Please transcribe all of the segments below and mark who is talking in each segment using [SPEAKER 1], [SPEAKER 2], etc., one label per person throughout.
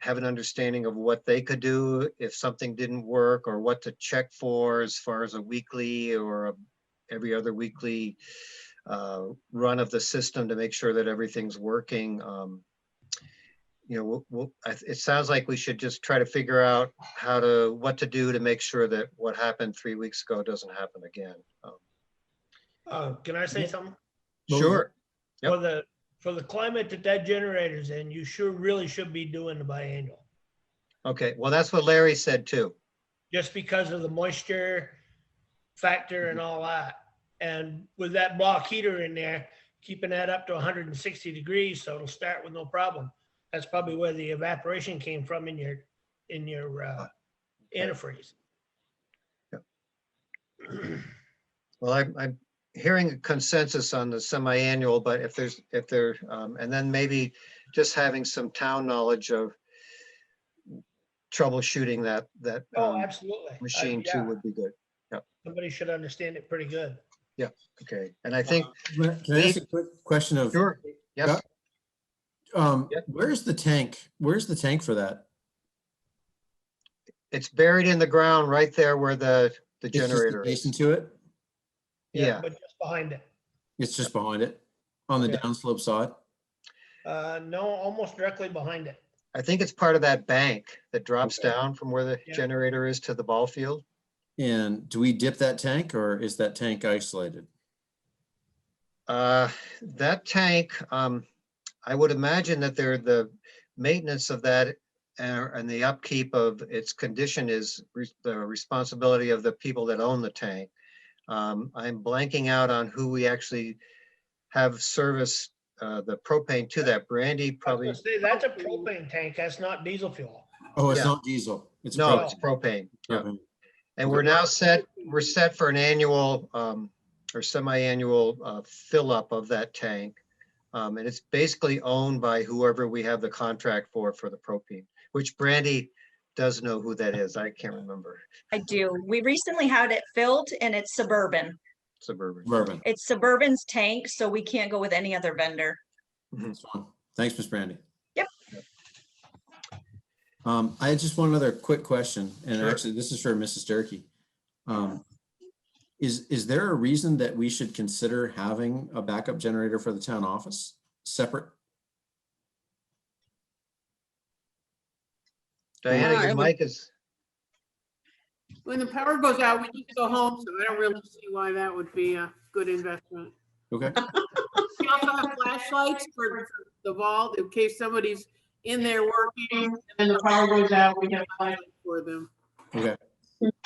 [SPEAKER 1] have an understanding of what they could do if something didn't work or what to check for as far as a weekly or a every other weekly uh, run of the system to make sure that everything's working. Um, You know, we'll- we'll, I th- it sounds like we should just try to figure out how to, what to do to make sure that what happened three weeks ago doesn't happen again. Um,
[SPEAKER 2] Uh, can I say
[SPEAKER 1] Yeah.
[SPEAKER 2] something?
[SPEAKER 3] Move it.
[SPEAKER 1] Sure, Yep.
[SPEAKER 2] For the, for the climate that that generator's in, you sure really should be doing the biannual.
[SPEAKER 1] okay, well, that's what Larry said too.
[SPEAKER 2] Just because of the moisture factor and all that. And with that block heater in there, keeping that up to hundred and sixty degrees, so it'll start with no problem. That's probably where the evaporation came from in your, in your, uh, antifreeze.
[SPEAKER 1] Well, I'm, I'm hearing a consensus on the semi-annual, but if there's, if there, um, and then maybe just having some town knowledge of troubleshooting that, that
[SPEAKER 2] Oh,
[SPEAKER 1] um,
[SPEAKER 2] absolutely. I-
[SPEAKER 1] machine
[SPEAKER 2] yeah,
[SPEAKER 1] too would be good.
[SPEAKER 2] Somebody should understand it pretty good.
[SPEAKER 1] Okay, and I think,
[SPEAKER 2] Uh,
[SPEAKER 3] Ma- Can I ask a quick question of,
[SPEAKER 1] sure, yes,
[SPEAKER 3] Yeah. um,
[SPEAKER 1] Yeah.
[SPEAKER 3] where's the tank? Where's the tank for that?
[SPEAKER 1] it's buried in the ground right there where the, the
[SPEAKER 3] It's just
[SPEAKER 1] generator is.
[SPEAKER 3] Adjacent to it?
[SPEAKER 1] Yeah,
[SPEAKER 2] But just behind it.
[SPEAKER 3] It's just behind it, on the
[SPEAKER 2] Yeah.
[SPEAKER 3] downslope side?
[SPEAKER 2] Uh, no, almost directly behind it.
[SPEAKER 1] I think it's part of that bank that drops
[SPEAKER 3] Okay.
[SPEAKER 1] down from where the
[SPEAKER 2] Yeah.
[SPEAKER 1] generator is to the ball field.
[SPEAKER 3] And do we dip that tank or is that tank isolated?
[SPEAKER 1] Uh, That tank, um, I would imagine that there, the maintenance of that uh, and the upkeep of its condition is re- the responsibility of the people that own the tank. Um, I'm blanking out on who we actually have service uh, the propane to that. Brandy
[SPEAKER 2] I was
[SPEAKER 1] probably,
[SPEAKER 2] gonna say, that's a propane tank, that's not diesel fuel.
[SPEAKER 3] Oh,
[SPEAKER 1] Yeah.
[SPEAKER 3] it's not diesel. It's
[SPEAKER 1] no,
[SPEAKER 3] propane.
[SPEAKER 1] it's propane. yeah.
[SPEAKER 3] Propane.
[SPEAKER 1] And we're now set, we're set for an annual um, or semi-annual uh, fill-up of that tank. Um, And it's basically owned by whoever we have the contract for, for the propane, which Brandy does know who that is. I can't remember.
[SPEAKER 4] I do. We recently had it filled and it's Suburban.
[SPEAKER 1] Suburban.
[SPEAKER 3] Bourbon.
[SPEAKER 4] It's Suburban's tank, so we can't go with any other vendor.
[SPEAKER 3] That's fine. Thanks, Ms. Brandy.
[SPEAKER 4] Yep.
[SPEAKER 3] Um, I had just one other quick question, and
[SPEAKER 1] Sure.
[SPEAKER 3] actually, this is for Mrs. Durkey. Um, is, is there a reason that we should consider having a backup generator for the town office separate?
[SPEAKER 1] Diana, your
[SPEAKER 5] Yeah, I
[SPEAKER 1] mic is,
[SPEAKER 5] When the power goes out, we need to go home, so I don't really see why that would be a good investment.
[SPEAKER 3] Okay,
[SPEAKER 5] We also have flashlights for the vault in case somebody's in there working and the power goes out, we have flashlights for them.
[SPEAKER 3] okay.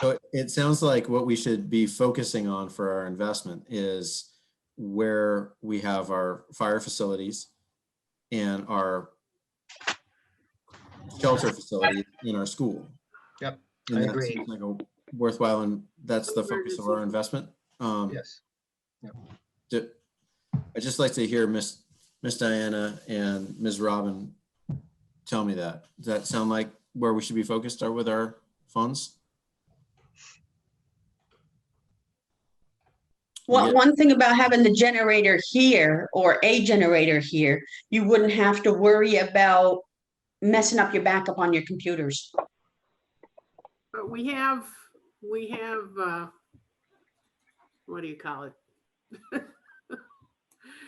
[SPEAKER 3] So it- it sounds like what we should be focusing on for our investment is where we have our fire facilities and our shelter facility in our school.
[SPEAKER 1] Yep,
[SPEAKER 3] And
[SPEAKER 1] I
[SPEAKER 3] that
[SPEAKER 1] agree.
[SPEAKER 3] seems Like a worthwhile, and that's the focus of our investment. Um,
[SPEAKER 1] yes.
[SPEAKER 3] d- I'd just like to hear Miss, Miss Diana and Ms. Robin tell me that. Does that sound like where we should be focused are with our funds?
[SPEAKER 6] Well,
[SPEAKER 3] Yeah.
[SPEAKER 6] one thing about having the generator here or a generator here, you wouldn't have to worry about messing up your backup on your computers.
[SPEAKER 5] But we have, we have, uh, what do you call it?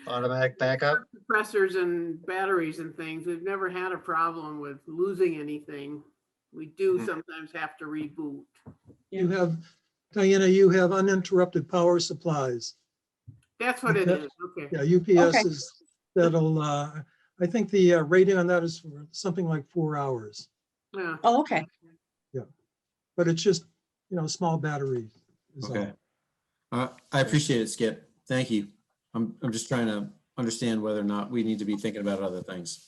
[SPEAKER 1] Automatic backup.
[SPEAKER 5] Compressors and batteries and things. We've never had a problem with losing anything. We do
[SPEAKER 1] Hmm.
[SPEAKER 5] sometimes have to reboot.
[SPEAKER 7] You have, Diana, you have uninterrupted power supplies.
[SPEAKER 5] That's what it
[SPEAKER 7] That-
[SPEAKER 5] is, okay.
[SPEAKER 7] Yeah, UPS
[SPEAKER 6] Okay.
[SPEAKER 7] is, that'll, uh, I think the uh, rating on that is for something like four hours,
[SPEAKER 5] Yeah.
[SPEAKER 6] Oh, okay.
[SPEAKER 7] but it's just, you know, small battery. is all.
[SPEAKER 3] Okay. Uh, I appreciate it, Skip. Thank you. I'm, I'm just trying to understand whether or not we need to be thinking about other things.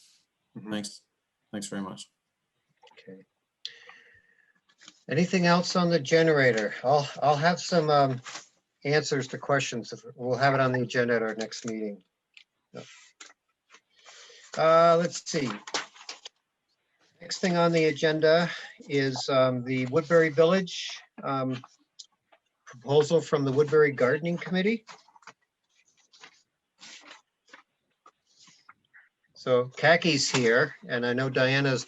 [SPEAKER 1] Mhm.
[SPEAKER 3] Thanks. Thanks very much.
[SPEAKER 1] Okay. Anything else on the generator? I'll, I'll have some um, answers to questions. if- We'll have it on the agenda at our next meeting. Yep. Uh, let's see. Next thing on the agenda is um, the Woodbury Village um, proposal from the Woodbury Gardening Committee. So Kaki's here, and I know Diana's